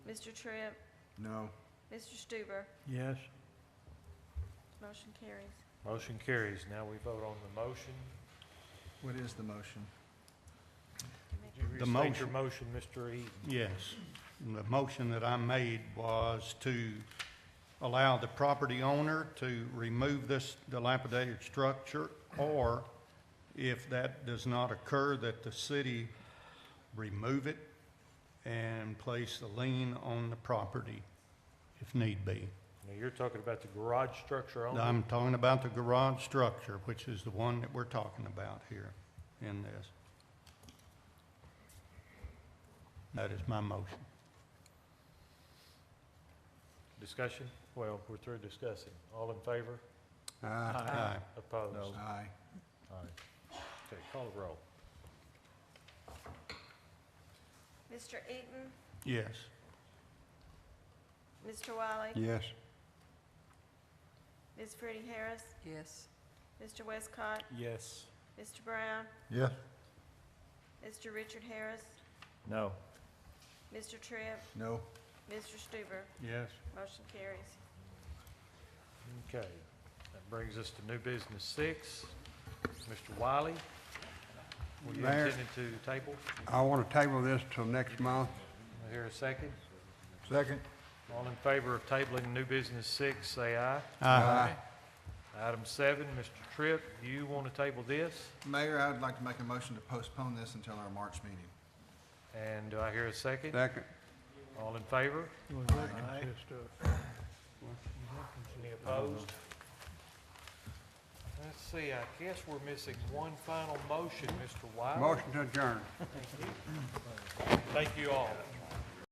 Mr. Tripp, No. Mr. Stuber, Yes. motion carries. Motion carries. Now we vote on the motion. What is the motion? Would The you restate your motion. motion, Mr. Eaton? Yes. And The motion that I made was to allow the property owner to remove this dilapidated structure, or if that does not occur, that the city remove it and place a lien on the property if need be. Now, you're talking about the garage structure only? I'm talking about the garage structure, which is the one that we're talking about here in this. That is my motion. Discussion? Well, we're through discussing. All in favor? Aye. Aye. Opposed? No. Aye. Aye. Okay, call the roll. Mr. Eaton, Yes. Mr. Wiley, Yes. Ms. Pretty Harris, yes, Mr. Westcott, Yes. Mr. Brown, Yes. Mr. Richard Harris, No. Mr. Tripp, No. Mr. Stuber, Yes. motion carries. Okay. That brings us to new business six. Mr. Wiley, were you Mayor. intending to table? I want to table this till next month. I Hear a second? Second. All in favor of tabling new business six, say aye. Aye. Item seven, Mr. Tripp, you want to table this? Mayor, I would like to make a motion to postpone this until our March meeting. And do I hear a second? Second, All in favor? Any opposed? Let's see, I guess we're missing one final motion, Mr. Wiley. motion to adjourn. Thank you all.